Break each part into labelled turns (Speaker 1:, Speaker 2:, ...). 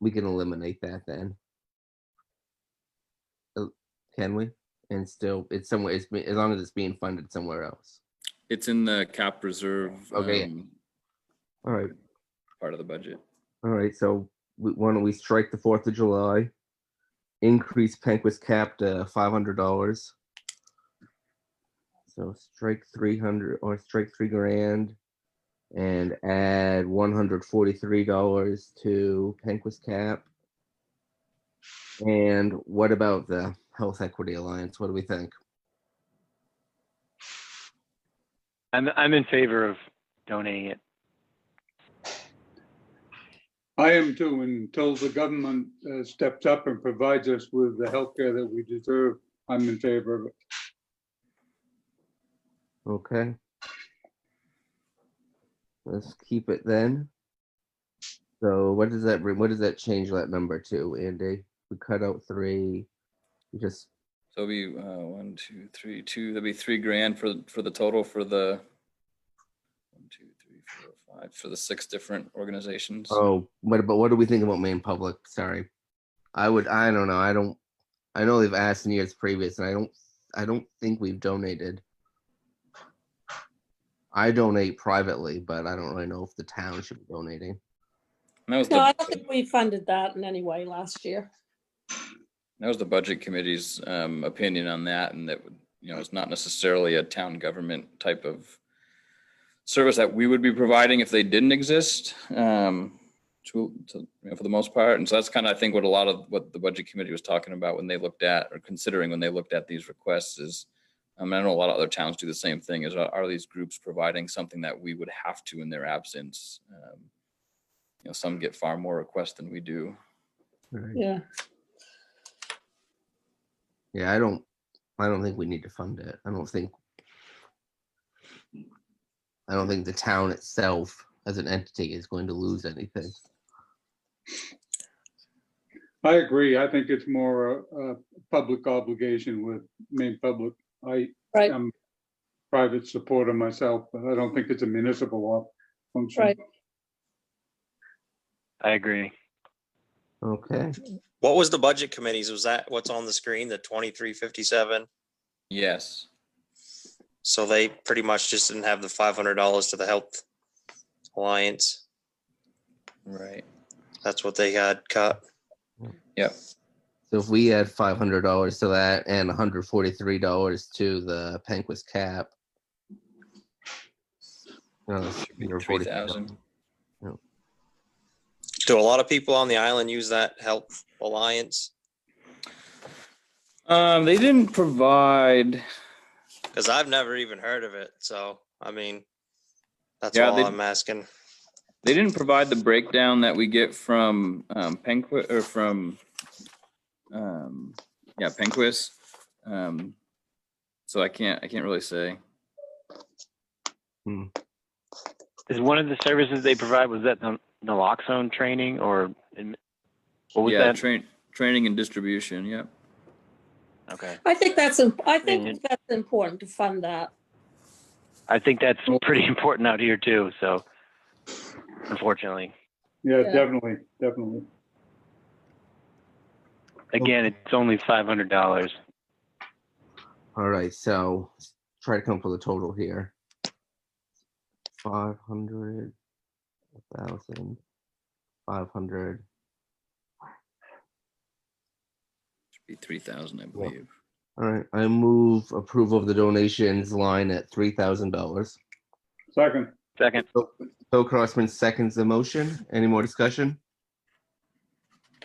Speaker 1: we can eliminate that then. Uh, Can we? And still, it's somewhere, it's, be- as long as it's being funded somewhere else.
Speaker 2: It's in the cap reserve.
Speaker 1: Okay.
Speaker 2: um,
Speaker 1: All right,
Speaker 2: Part of the budget.
Speaker 1: all right, so we- why don't we strike the Fourth of July? Increase Penquist cap to five hundred dollars. So strike three hundred or strike three grand. And add one hundred forty-three dollars to Penquist cap. And what about the Health Equity Alliance? What do we think?
Speaker 3: I'm, I'm in favor of donating it.
Speaker 4: I am too, until the government uh, steps up and provides us with the healthcare that we deserve, I'm in favor of it.
Speaker 1: Okay. Let's keep it then. So what does that, bring- what does that change that number to, Andy? We cut out three, we just,
Speaker 2: So it'll be uh, one, two, three, two, that'd be three grand for, for the total for the one, two, three, four, five, for the six different organizations.
Speaker 1: oh, what about, what do we think about Maine Public? Sorry. I would, I don't know, I don't, I know they've asked in years previous and I don't, I don't think we've donated. I donate privately, but I don't really know if the town should be donating.
Speaker 2: And That was
Speaker 5: No, I
Speaker 2: the,
Speaker 5: don't think we funded that in any way last year.
Speaker 2: that was the budget committee's um, opinion on that and that, would you know, it's not necessarily a town government type of service that we would be providing if they didn't exist. um, To, to, you know, for the most part. And so that's kind of, I think, what a lot of what the budget committee was talking about when they looked at or considering when they looked at these requests is um, I know a lot of other towns do the same thing is are, are these groups providing something that we would have to in their absence? Um, You know, some get far more requests than we do.
Speaker 1: Right.
Speaker 5: Yeah.
Speaker 1: Yeah, I don't, I don't think we need to fund it. I don't think. I don't think the town itself as an entity is going to lose anything.
Speaker 4: I agree. I think it's more a, a public obligation with main public. I
Speaker 5: Right.
Speaker 4: am private supporter myself, but I don't think it's a municipal op- function.
Speaker 5: Right.
Speaker 3: I agree.
Speaker 1: Okay,
Speaker 6: What was the budget committees? Was that what's on the screen, the twenty-three fifty-seven?
Speaker 2: Yes.
Speaker 6: So they pretty much just didn't have the five hundred dollars to the Health Alliance.
Speaker 2: Right.
Speaker 6: That's what they had cut.
Speaker 1: so if we add five hundred dollars to that and hundred forty-three dollars to the Penquist cap. Uh, no, that's
Speaker 2: Should be
Speaker 1: 143,000.
Speaker 2: 3,000.
Speaker 6: Do a lot of people on the island use that Health Alliance?
Speaker 2: Um, they didn't provide.
Speaker 6: Because I've never even heard of it. So, I mean, that's
Speaker 2: Yeah,
Speaker 6: all
Speaker 2: they-
Speaker 6: I'm asking.
Speaker 2: They didn't provide the breakdown that we get from um, Penqui or from um, yeah Penquist. Um, so I can't I can't really say.
Speaker 3: Is one of the services they provide, was that the naloxone training or? in- What was
Speaker 2: yeah,
Speaker 3: that?
Speaker 2: train training and distribution. Yep.
Speaker 3: Okay.
Speaker 5: I think that's, im- I think
Speaker 3: Mhm.
Speaker 5: that's important to fund that.
Speaker 3: I think that's pretty important out here too, so unfortunately.
Speaker 4: Yeah,
Speaker 5: Yeah.
Speaker 4: definitely, definitely.
Speaker 3: Again, it's only five hundred dollars.
Speaker 1: All right, so let's try to come up with a total here. Five hundred, a thousand, five hundred.
Speaker 2: Should be three thousand, I
Speaker 1: Yeah.
Speaker 2: believe.
Speaker 1: All right, I move approval of the donations line at three thousand dollars.
Speaker 4: Second,
Speaker 3: Second,
Speaker 1: Bill Crossman seconds the motion. Any more discussion?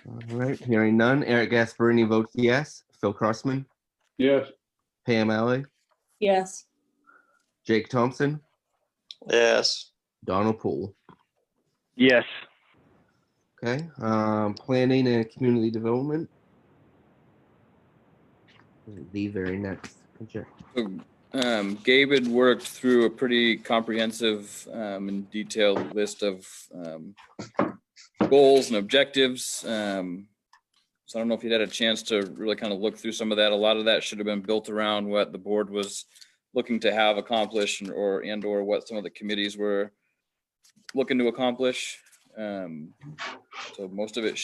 Speaker 1: All right, hearing none. Eric Gasparini votes yes. Phil Crossman,
Speaker 4: yes,
Speaker 1: Pam Alley,
Speaker 5: Yes.
Speaker 1: Jake Thompson,
Speaker 6: Yes.
Speaker 1: Donald Poole.
Speaker 3: yes,
Speaker 1: Okay, um, planning and community development. The very next agenda.
Speaker 2: So, um, Gabe had worked through a pretty comprehensive um, and detailed list of um, goals and objectives. Um, so I don't know if you'd had a chance to really kind of look through some of that. A lot of that should have been built around what the board was looking to have accomplished and or and or what some of the committees were looking to accomplish. Um, so most of it